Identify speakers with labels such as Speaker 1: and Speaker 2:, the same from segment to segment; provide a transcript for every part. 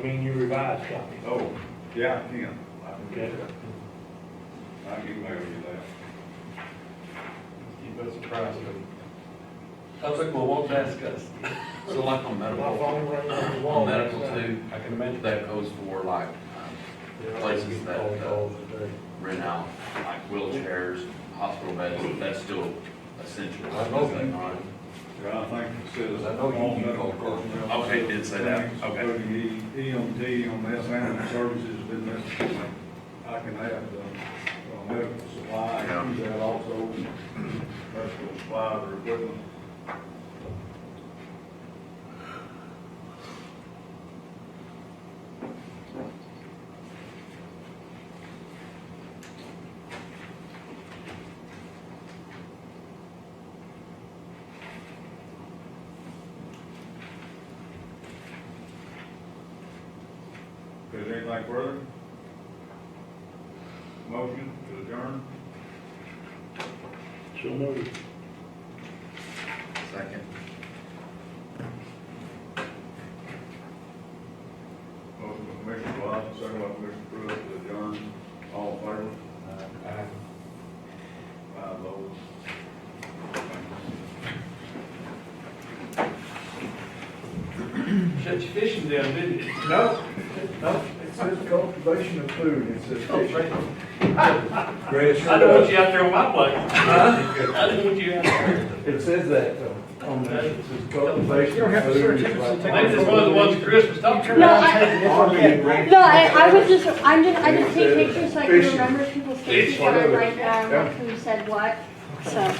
Speaker 1: Can you revise copy?
Speaker 2: Oh, yeah, I can. I can
Speaker 1: Okay.
Speaker 2: do that. I can email you that.
Speaker 3: Keep us surprised.
Speaker 4: Public will want to ask us.
Speaker 5: So like on
Speaker 1: My
Speaker 5: medical,
Speaker 1: phone rang on the wall.
Speaker 5: on medical
Speaker 1: last night.
Speaker 5: too,
Speaker 3: uh, I can imagine that.
Speaker 5: that goes for like um, places that,
Speaker 3: Phone
Speaker 5: uh,
Speaker 3: calls today.
Speaker 5: rent out, like wheelchairs, hospital beds, that's still essential.
Speaker 3: I know.
Speaker 5: is that right?
Speaker 2: Yeah, I think it says.
Speaker 3: I know you
Speaker 2: all
Speaker 3: can
Speaker 2: medical
Speaker 3: call Carl.
Speaker 2: personnel
Speaker 5: Okay, it Oh, did say that.
Speaker 2: things,
Speaker 5: Okay.
Speaker 2: Including E- EMT, EMS, ambulance services, then that's, I can add the uh, medical supply, I use that also, medical supply or equipment. Is there anything further? Motion to adjourn?
Speaker 1: So moved.
Speaker 5: Second.
Speaker 2: Motion by Commissioner Watson, second by Commissioner Pruitt, to adjourn, all in favor?
Speaker 3: I-
Speaker 2: Five oh. votes.
Speaker 4: Shut your fishing down, didn't you?
Speaker 3: No, no, it says cultivation of food, it says fishing. Great,
Speaker 4: I don't want you out there on my plate. I don't want you out there.
Speaker 3: It says that though, on that, it says cultivation of food. is like-
Speaker 4: Maybe it's one of the ones Christmas don't turn
Speaker 6: No,
Speaker 4: out.
Speaker 6: I,
Speaker 3: Army-
Speaker 6: no, I, I was just, I'm just, I just take pictures so I can remember people's faces when I
Speaker 3: Fishing.
Speaker 6: write down who said what, so.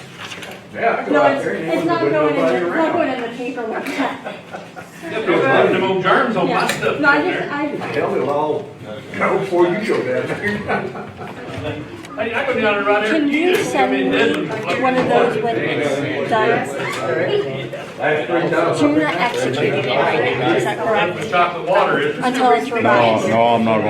Speaker 3: Yeah, I go
Speaker 6: No,
Speaker 3: out
Speaker 6: it's,
Speaker 3: there and
Speaker 6: it's
Speaker 3: look,
Speaker 6: not
Speaker 3: but
Speaker 6: going in,
Speaker 3: nobody
Speaker 6: it's
Speaker 3: around.
Speaker 6: not going in the paper like that.
Speaker 4: They'll be finding them old germs on my
Speaker 6: Yeah.
Speaker 4: stuff down
Speaker 6: No, I just,
Speaker 4: there.
Speaker 6: I,
Speaker 3: Hell, it'll all go before you go down there.
Speaker 4: Hey, I go down there right
Speaker 6: can
Speaker 4: after you.
Speaker 6: you
Speaker 4: do.
Speaker 6: send
Speaker 4: Come in
Speaker 6: me
Speaker 4: Midland, like
Speaker 6: one of those with the,
Speaker 3: That's pretty dumb.
Speaker 6: Juna executed it right now, is that
Speaker 4: That's
Speaker 6: correct?
Speaker 4: what chocolate water is.
Speaker 6: Until it's revised.
Speaker 2: no, I'm not